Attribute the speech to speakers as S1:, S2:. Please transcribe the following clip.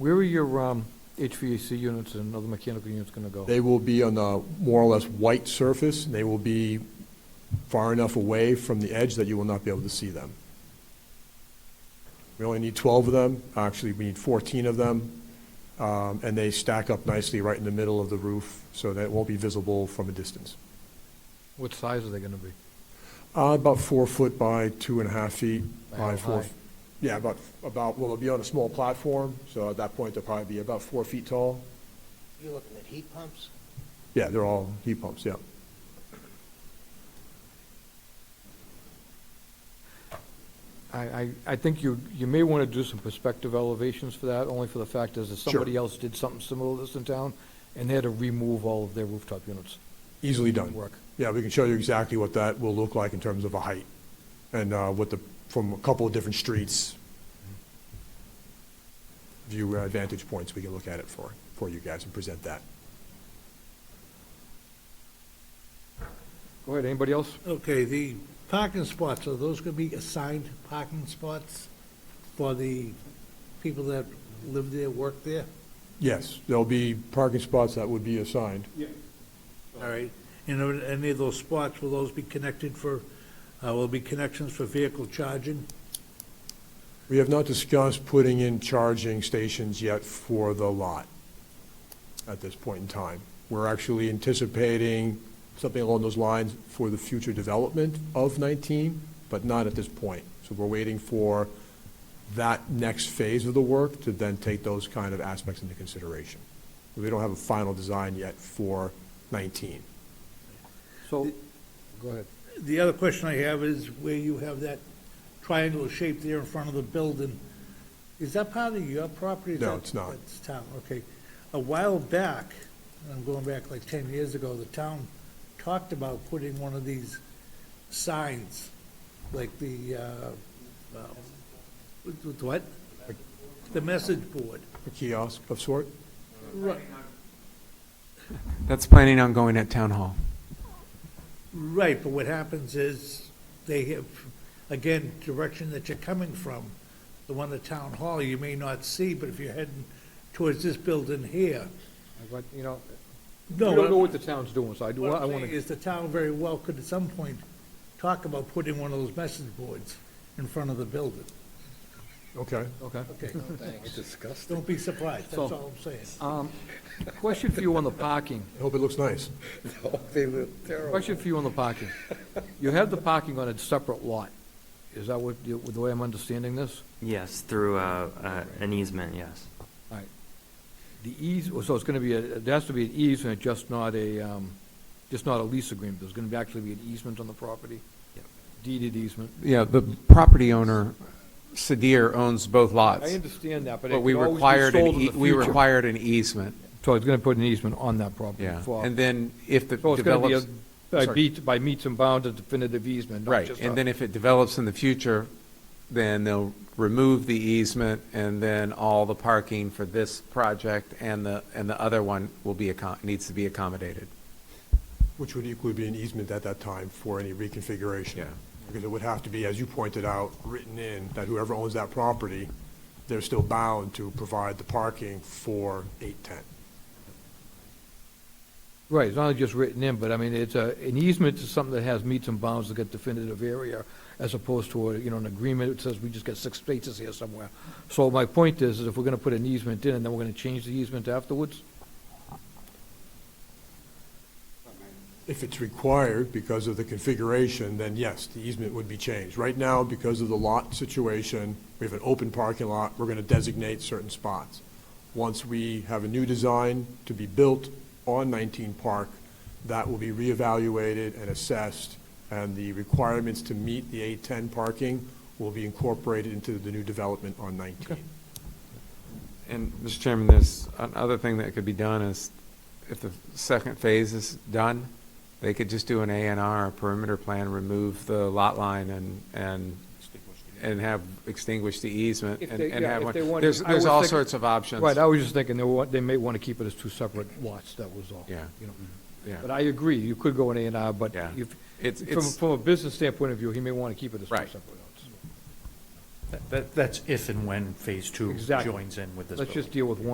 S1: Where are your um, HVAC units and other mechanical units going to go?
S2: They will be on a more or less white surface, and they will be far enough away from the edge that you will not be able to see them. We only need 12 of them, actually, we need 14 of them, um, and they stack up nicely right in the middle of the roof, so that it won't be visible from a distance.
S1: What size are they going to be?
S2: Uh, About four foot by two and a half feet
S1: By how
S2: by four.
S1: high?
S2: Yeah, about, about, well, it'll be on a small platform, so at that point, they'll probably be about four feet tall.
S3: You're looking at heat pumps?
S2: Yeah, they're all heat pumps, yeah.
S1: I, I, I think you, you may want to do some perspective elevations for that, only for the fact is that
S2: Sure.
S1: somebody else did something similar to this in town, and they had to remove all of their rooftop units.
S2: Easily done.
S1: Work.
S2: Yeah, we can show you exactly what that will look like in terms of a height and uh, what the, from a couple of different streets, view uh, vantage points, we can look at it for, for you guys and present that.
S1: Go ahead, anybody else?
S4: Okay, the parking spots, are those gonna be assigned parking spots for the people that live there, work there?
S2: Yes, there'll be parking spots that would be assigned.
S4: All right, and are any of those spots, will those be connected for, uh, will be connections for vehicle charging?
S2: We have not discussed putting in charging stations yet for the lot at this point in time. We're actually anticipating something along those lines for the future development of 19, but not at this point. So we're waiting for that next phase of the work to then take those kind of aspects into consideration. We don't have a final design yet for 19.
S1: So, go ahead.
S4: The other question I have is where you have that triangular shape there in front of the building, is that part of your property?
S2: No,
S4: That-
S2: it's not.
S4: That's town, okay. A while back, and I'm going back like ten years ago, the town talked about putting one of these signs, like the, uh, uh, with- with what? The message board.
S2: A kiosk of sort?
S4: Right.
S5: That's planning on going at town hall.
S4: Right, but what happens is, they have, again, direction that you're coming from, the one at Town Hall, you may not see, but if you're heading towards this building here.
S1: I want- You know, we
S4: No,
S1: don't know what the town's doing, so I do,
S4: What
S1: I
S4: I'm
S1: want
S4: saying
S1: to,
S4: is, the town very well could at some point talk about putting one of those message boards in front of the building.
S2: Okay.
S1: okay.
S4: Okay,
S3: Thanks.
S4: don't be surprised, that's
S1: So-
S4: all I'm saying.
S1: Um, Question for you on the parking.
S2: I hope it looks nice.
S3: They look terrible.
S1: Question for you on the parking. You have the parking on a separate lot. Is that what, you- the way I'm understanding this?
S6: Yes, through uh, uh, an easement, yes.
S1: All right. The ease, so it's going to be, a there has to be an easement, just not a, um, just not a lease agreement. There's going to be actually be an easement on the property? Deeded easement.
S5: Yeah, the property owner, Sadir, owns both
S1: I
S5: lots,
S1: understand that, but it
S5: but we
S1: could always be
S5: required, an
S1: sold in
S5: ea-
S1: the
S5: we
S1: future.
S5: required an easement,
S1: So it's going to put an easement on that property
S5: yeah.
S1: for...
S5: And then if the
S1: So it's going to be a,
S5: develops,
S1: by
S5: sorry.
S1: beat- by meets and bounds, a definitive easement, not
S5: right,
S1: just a-
S5: and then if it develops in the future, then they'll remove the easement, and then all the parking for this project and the, and the other one will be, accom- needs to be accommodated.
S2: Which would equally be an easement at that time for any reconfiguration.
S5: Yeah.
S2: Because it would have to be, as you pointed out, written in that whoever owns that property, they're still bound to provide the parking for 810.
S1: Right, it's not just written in, but I mean, it's a, an easement is something that has meets and bounds to get definitive area, as opposed to, a, you know, an agreement that says we just got six spaces here somewhere. So my point is, is if we're gonna put an easement in, and then we're gonna change the easement afterwards,
S2: If it's required because of the configuration, then yes, the easement would be changed. Right now, because of the lot situation, we have an open parking lot, we're going to designate certain spots. Once we have a new design to be built on 19 Park, that will be reevaluated and assessed, and the requirements to meet the 810 parking will be incorporated into the new development on 19.
S5: And, Mr. Chairman, there's another thing that could be done is, if the second phase is done, they could just do an A and R, a perimeter plan, remove the lot line and, and, and have, extinguish the easement
S1: If
S5: and
S1: they-
S5: and
S1: yeah,
S5: have
S1: if
S5: one.
S1: they wanted-
S5: There's,
S1: I
S5: there's
S1: was
S5: all
S1: thinking-
S5: sorts of options.
S1: right, I was just thinking, they wa, they may wanna keep it as two separate lots, that was all.
S5: Yeah. Mm-hmm.
S1: You know,
S5: Yeah.
S1: but I agree, you could go in A and R, but
S5: Yeah.
S1: if,
S5: It's-
S1: from,
S5: it's-
S1: from a business standpoint of view, he may wanna keep it as two
S5: Right.
S1: separate lots.
S4: That, that's if and when phase two
S1: Exactly.
S4: joins in with this
S1: Let's
S4: building.
S1: just deal with one.